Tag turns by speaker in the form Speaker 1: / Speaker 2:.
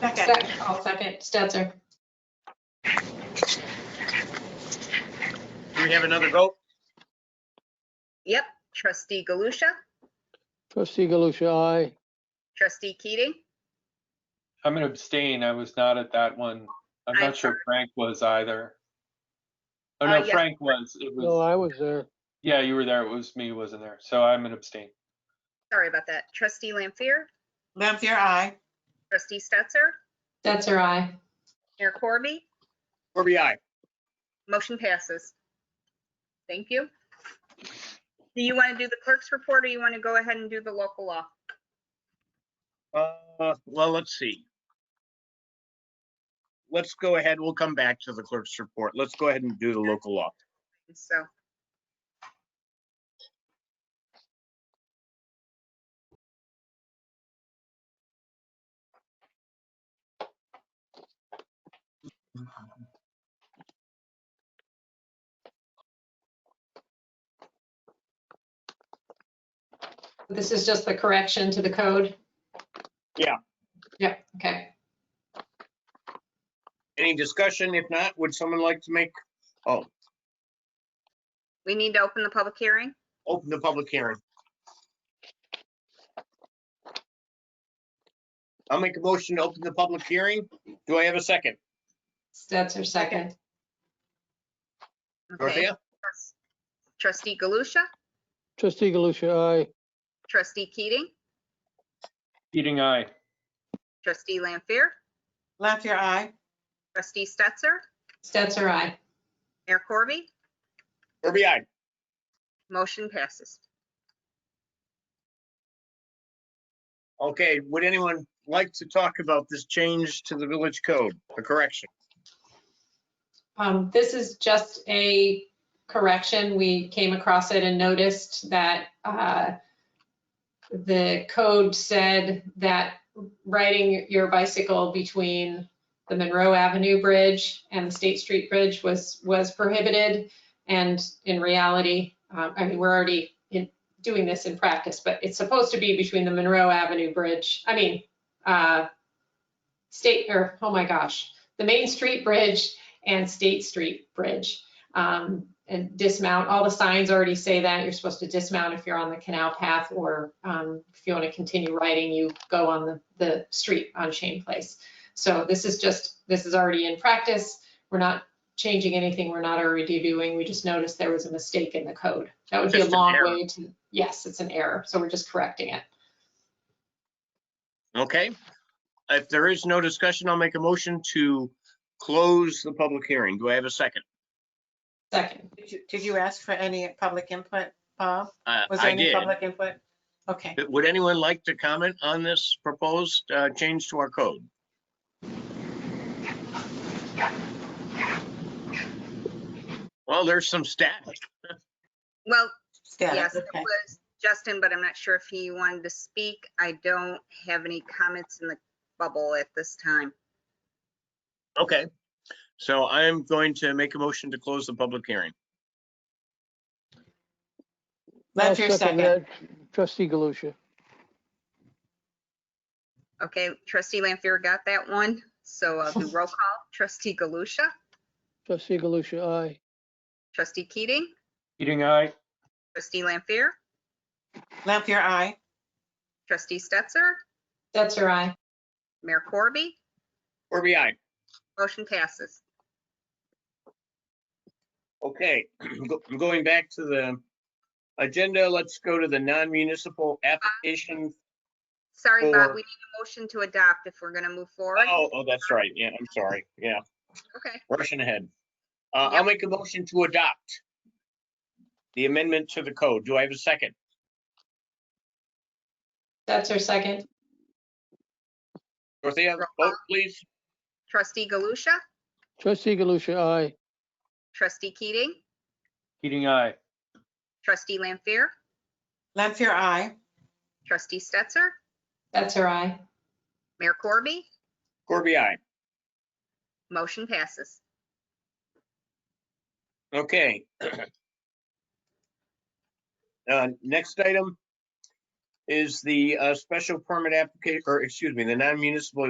Speaker 1: Second.
Speaker 2: Sec- I'll second, Stetser.
Speaker 3: Do we have another vote?
Speaker 4: Yep, trustee Galusha,
Speaker 5: Trustee Galusha, aye.
Speaker 4: trustee Keating,
Speaker 6: I'm gonna abstain. I was not at that one. I'm
Speaker 4: I-
Speaker 6: not sure Frank was either. Oh,
Speaker 4: Uh,
Speaker 6: no,
Speaker 4: yes.
Speaker 6: Frank was. It
Speaker 5: No,
Speaker 6: was,
Speaker 5: I was there.
Speaker 6: yeah, you were there. It was me, who wasn't there. So I'm an abstain.
Speaker 4: sorry about that, trustee Lampier,
Speaker 1: Lampier, aye.
Speaker 4: trustee Stetser,
Speaker 2: Stetser, aye.
Speaker 4: Mayor Corby,
Speaker 3: Corby, aye.
Speaker 4: motion passes. Thank you. Do you want to do the clerk's report or you want to go ahead and do the local law?
Speaker 3: Uh, well, let's see. Let's go ahead. We'll come back to the clerk's report. Let's go ahead and do the local law.
Speaker 4: So,
Speaker 2: This is just the correction to the code?
Speaker 3: Yeah.
Speaker 2: Yeah, okay.
Speaker 3: Any discussion? If not, would someone like to make, oh,
Speaker 4: we need to open the public hearing.
Speaker 3: open the public hearing? I'll make a motion to open the public hearing. Do I have a second?
Speaker 2: Stetser, second.
Speaker 4: Okay.
Speaker 3: Dorothea?
Speaker 4: Trustee Galusha,
Speaker 5: Trustee Galusha, aye.
Speaker 4: trustee Keating,
Speaker 6: Eating eye.
Speaker 4: trustee Lampier,
Speaker 1: Lampier, aye.
Speaker 4: trustee Stetser,
Speaker 2: Stetser, aye.
Speaker 4: Mayor Corby,
Speaker 3: Corby, aye.
Speaker 4: motion passes.
Speaker 3: Okay, would anyone like to talk about this change to the village code, a correction?
Speaker 2: Um, this is just a correction. We came across it and noticed that, uh, the code said that riding your bicycle between the Monroe Avenue Bridge and the State Street Bridge was, was prohibited. And in reality, uh, I mean, we're already in, doing this in practice, but it's supposed to be between the Monroe Avenue Bridge, I mean, uh, State, or, oh my gosh, the Main Street Bridge and State Street Bridge. Um, and dismount, all the signs already say that, you're supposed to dismount if you're on the canal path or, um, if you want to continue riding, you go on the, the street on Shane Place. So this is just, this is already in practice, we're not changing anything, we're not already doing, we just noticed there was a mistake in the code. That would be a
Speaker 3: Just an
Speaker 2: long
Speaker 3: error.
Speaker 2: way to, yes, it's an error, so we're just correcting it.
Speaker 3: Okay, if there is no discussion, I'll make a motion to close the public hearing. Do I have a second?
Speaker 2: Second,
Speaker 1: Did you- Did you ask for any public input, Bob?
Speaker 3: Uh,
Speaker 1: Was there
Speaker 3: I
Speaker 1: any
Speaker 3: did.
Speaker 1: public input? Okay.
Speaker 3: Would anyone like to comment on this proposed uh, change to our code? Well, there's some static.
Speaker 4: Well,
Speaker 1: Static,
Speaker 4: Yes, it
Speaker 1: okay.
Speaker 4: was Justin, but I'm not sure if he wanted to speak. I don't have any comments in the bubble at this time.
Speaker 3: Okay, so I'm going to make a motion to close the public hearing.
Speaker 5: I'll
Speaker 1: Lampier, second.
Speaker 5: that. Trustee Galusha.
Speaker 4: Okay, trustee Lampier got that one. So I'll do roll call. Trustee Galusha,
Speaker 5: Trustee Galusha, aye.
Speaker 4: trustee Keating,
Speaker 6: Eating eye.
Speaker 4: trustee Lampier,
Speaker 1: Lampier, aye.
Speaker 4: trustee Stetser,
Speaker 2: Stetser, aye.
Speaker 4: Mayor Corby.
Speaker 3: Corby, aye.
Speaker 4: Motion passes.
Speaker 3: Okay, go- going back to the agenda, let's go to the non-municipal application.
Speaker 4: Sorry, Bob,
Speaker 3: Four.
Speaker 4: we need a motion to adopt if we're going to move forward.
Speaker 3: Oh, oh, that's right. Yeah, I'm sorry. Yeah,
Speaker 4: Okay,
Speaker 3: rushing ahead. Uh, I'll
Speaker 4: Yep.
Speaker 3: make a motion to adopt the amendment to the code. Do I have a second?
Speaker 2: That's her second.
Speaker 3: Dorothea, vote please.
Speaker 4: trustee Galusha,
Speaker 5: Trustee Galusha, aye.
Speaker 4: trustee Keating,
Speaker 6: Eating eye.
Speaker 4: trustee Lampier,
Speaker 1: Lampier, aye.
Speaker 4: trustee Stetser,
Speaker 2: That's her eye.
Speaker 4: Mayor Corby.
Speaker 3: Corby, aye.
Speaker 4: Motion passes.
Speaker 3: Okay. Uh, Next item is the uh, special permit application, or excuse me, the non-municipal